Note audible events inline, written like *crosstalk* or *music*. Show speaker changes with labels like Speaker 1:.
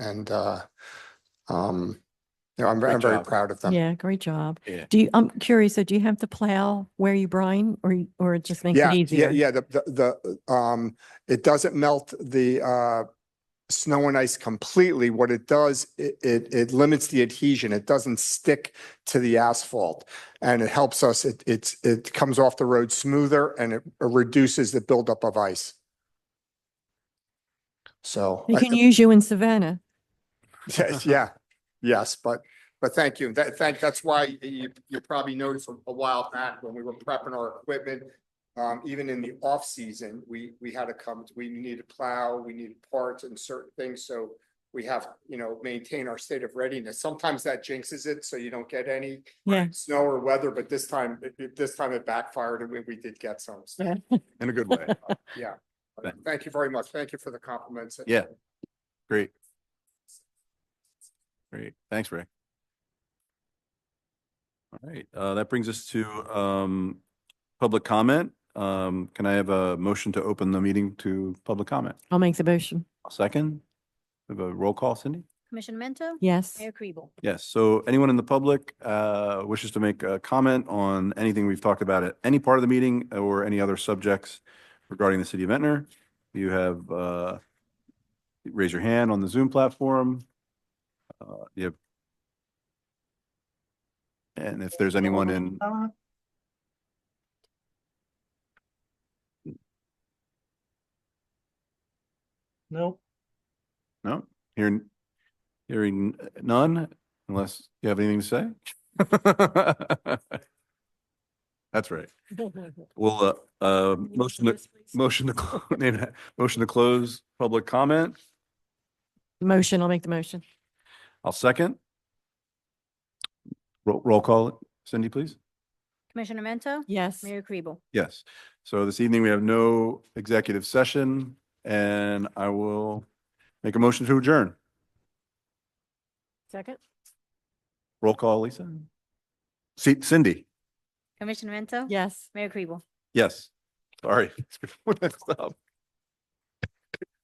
Speaker 1: and, uh, um, you know, I'm, I'm
Speaker 2: Great
Speaker 1: very
Speaker 2: job.
Speaker 1: proud of them.
Speaker 3: Yeah, great job.
Speaker 2: Yeah.
Speaker 3: Do you, I'm curious, so do you have to plow where you brine or, you- or it just makes
Speaker 1: Yeah,
Speaker 3: it
Speaker 1: yeah,
Speaker 3: easier?
Speaker 1: yeah, the, the, the, um, it doesn't melt the, uh, snow and ice completely. What it does, it, it, it limits the adhesion. It doesn't stick to the asphalt. And it helps us, it, it's, it comes off the road smoother and it reduces the buildup of ice. So.
Speaker 3: They
Speaker 1: I
Speaker 3: can
Speaker 1: think-
Speaker 3: use you in Savannah.
Speaker 1: Yes, yeah, yes, but, but thank you. That, thank, that's why you, you probably noticed a- a while back when we were prepping our equipment. Um, even in the off-season, we, we had to come, we needed plow, we needed parts and certain things, so we have, you know, maintain our state of readiness. Sometimes that jinxes it, so you don't get any
Speaker 3: Yeah.
Speaker 1: snow or weather, but this time, it- it- this time it backfired and we, we did get some. so,
Speaker 3: Yeah.
Speaker 2: in a good way.
Speaker 1: Yeah.
Speaker 2: Thank-
Speaker 1: Thank you very much. Thank you for the compliments.
Speaker 2: Yeah. Great. Great. Thanks, Ray. All right, uh, that brings us to, um, public comment. Um, can I have a motion to open the meeting to public comment?
Speaker 3: I'll make the motion.
Speaker 2: A Second, we have a roll call, Cindy?
Speaker 4: Commissioner Mento?
Speaker 3: Yes.
Speaker 4: Mayor Kribel?
Speaker 2: Yes, so anyone in the public, uh, wishes to make a comment on anything we've talked about at any part of the meeting or any other subjects regarding the city of Ventnor, you have, uh, raise your hand on the Zoom platform. Uh, you have. And if there's anyone in,
Speaker 5: No,
Speaker 2: no, hearing, hearing none, unless you have anything to say? *laughs* That's right. We'll, uh, uh, motion to Motion to, clo- *laughs* name that- motion to close public comment.
Speaker 3: Motion, I'll make the motion.
Speaker 2: I'll second. Roll, roll call, Cindy, please.
Speaker 4: Commissioner Mento?
Speaker 3: Yes.
Speaker 4: Mayor Kribel?
Speaker 2: Yes. So this evening we have no executive session and I will make a motion to adjourn.
Speaker 3: Second?
Speaker 2: Roll call, Lisa. C- Cindy,
Speaker 4: Commissioner Mento?
Speaker 3: Yes.
Speaker 4: Mayor Kribel?
Speaker 2: *laughs* yes. Sorry. Stop.